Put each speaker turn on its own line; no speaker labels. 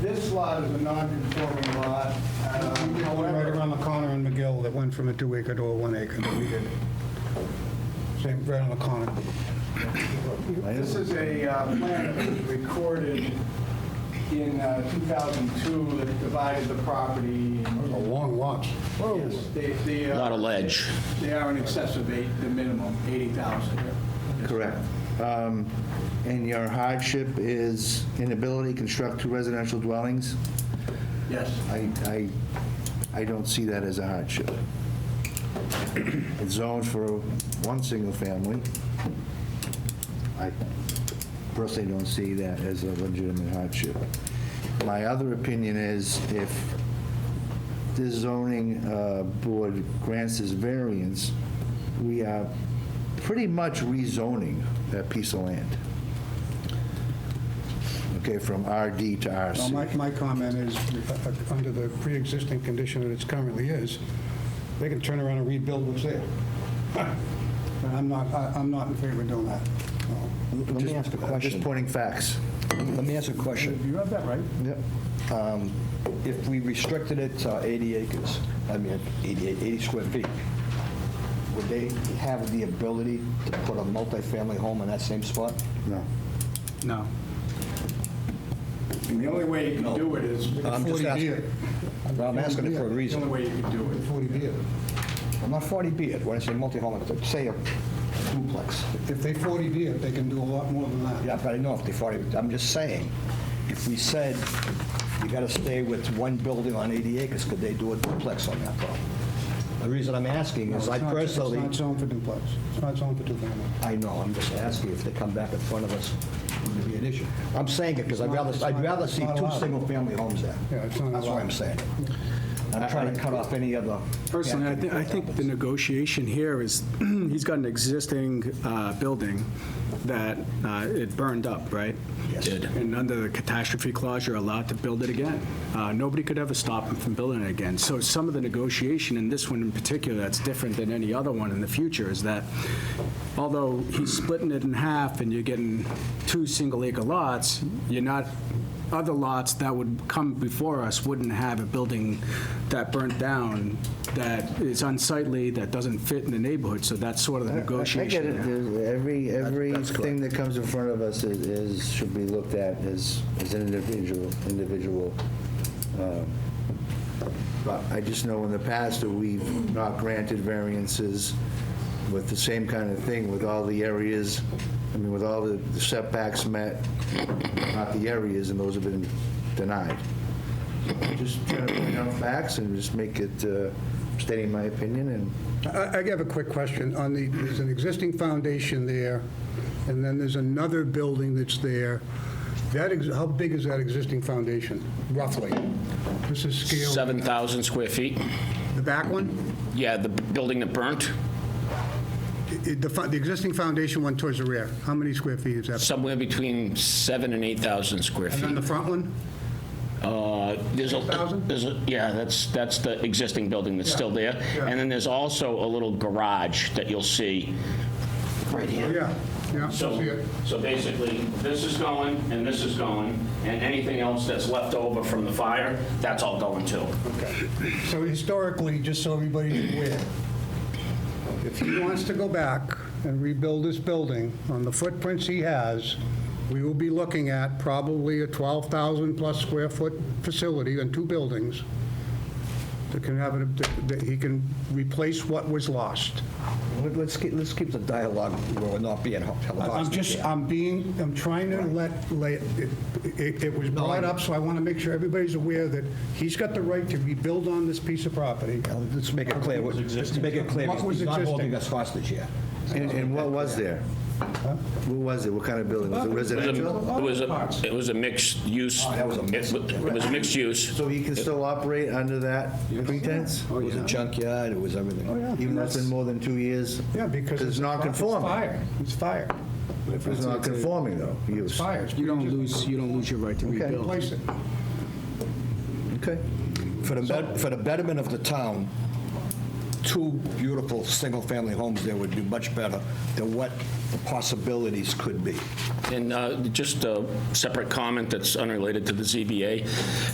lot is a non-conforming lot. Um,
The one Right
However,
around the corner in McGill that went from a two acre to a one acre that we did. Same, right on the corner.
this is a uh, plan that was recorded in uh, 2002 that divided the property.
Those are long lots.
Yes, they- they are-
Not a ledge.
They are in excess of eight, the minimum, 80,000.
Correct. Um, And your hardship is inability to construct two residential dwellings?
Yes.
I, I, I don't see that as a hardship. It's zoned for one single family. I personally don't see that as a legitimate hardship. My other opinion is if this zoning uh, board grants this variance, we are pretty much rezoning that piece of land. Okay, from RD to RC.
Well, my, my comment is, uh, uh, under the pre-existing condition that it's currently is, they can turn around and rebuild what's there. And I'm not, I- I'm not in favor of doing that. So,
Let me ask a
I'm Just
question.
pointing facts.
Let me ask a question. Um,
You have that right.
Yep.
If we restricted it to 80 acres, I mean, 88, 80 square feet, would they have the ability to put a multifamily home in that same spot?
No.
No.
And the only way you can do it is, the
Um,
I'm just
40B
asking.
it.
Well, I'm asking it for a
only
reason.
way you can do it.
40B it.
I'm not 40B it, when I say multi-home, it's, say a duplex.
If they 40B it, they can do a lot more than that.
Yeah, but I know if they 40, I'm just saying, if we said, you got to stay with one building on 80 acres, could they do a duplex on that property? The reason I'm asking
No,
is I
it's not-
personally...
It's not zoned for duplex. It's not zoned for two-family.
I know, I'm just asking if they come back in front of us, would it be an issue? I'm saying it because I'd rather, I'd rather see
It's not
two
allowed.
single-family homes there.
Yeah, it's not
That's why
allowed.
I'm saying it. I'm trying to cut off any other...
Personally, I think, I think the negotiation here is, he's got an existing uh, building that uh, it burned up, right?
Yes. Did.
And under the catastrophe clause, you're allowed to build it again. Uh, Nobody could ever stop him from building it again. So some of the negotiation in this one in particular, that's different than any other one in the future, is that although he's splitting it in half and you're getting two single-acre lots, you're not, other lots that would come before us wouldn't have a building that burnt down, that is unsightly, that doesn't fit in the neighborhood, so that's sort of the
I get
negotiation.
it.
there.
There's- Every,
that's correct.
everything that comes in front of us is- is, should be looked at as, as an individual, individual. um, But I just know in the past that we've not granted variances with the same kind of thing, with all the areas, I mean, with all the setbacks met, not the areas, and those have been denied. So Just trying to point out facts and just make it, uh, stating my opinion and
I I have a quick question. On the, there's an existing foundation there, and then there's another building that's there. That, ex- how big is that existing foundation, roughly? This is scale.
7,000 square feet.
The back one?
Yeah, the b- building that burnt,
I- I- The fo- the existing foundation one towards the rear, how many square feet is that?
somewhere between 7 and 8,000 square
And then
feet.
the front one?
Uh, There's a
6,000?
there's a- Yeah, that's, that's the existing building that's still there.
yeah.
And then there's also a little garage that you'll see right here.
Yeah, yeah, I see
So,
it.
so basically, this is going, and this is going, and anything else that's left over from the fire, that's all going too.
So historically, just so everybody's aware, if he wants to go back and rebuild this building on the footprints he has, we will be looking at probably a 12,000-plus square foot facility and two buildings that can have, it- that- that he can replace what was lost.
Let- Let's keep, let's keep the dialogue where we're not being held
I'm
hostage
just,
here.
I'm being, I'm trying to let, lay- it- it it was brought up, so I want to make sure everybody's aware that he's got the right to rebuild on this piece of property.
Now, Let's make it clear, let's make it clear,
What was
he's not holding
existing?
us hostage here.
And, and what was there? What was it? What kind of building? Was it residential?
It was a, it was a mixed use.
Oh, that was a mixed-
It wa- it was a mixed use.
So he can still operate under that pretense?
Oh,
It was a junkyard, it was everything.
Even though it's been more than two years?
Yeah, because
It's
it's
not conforming.
fire. It's fire.
It's not conforming though, use.
Fire.
You don't lose, you don't lose your right to rebuild.
Replace it.
Okay.
For the, bet- for the betterment of the town, two beautiful, single-family homes there would do much better than what the possibilities could be.
And uh, just a separate comment that's unrelated to the ZBA.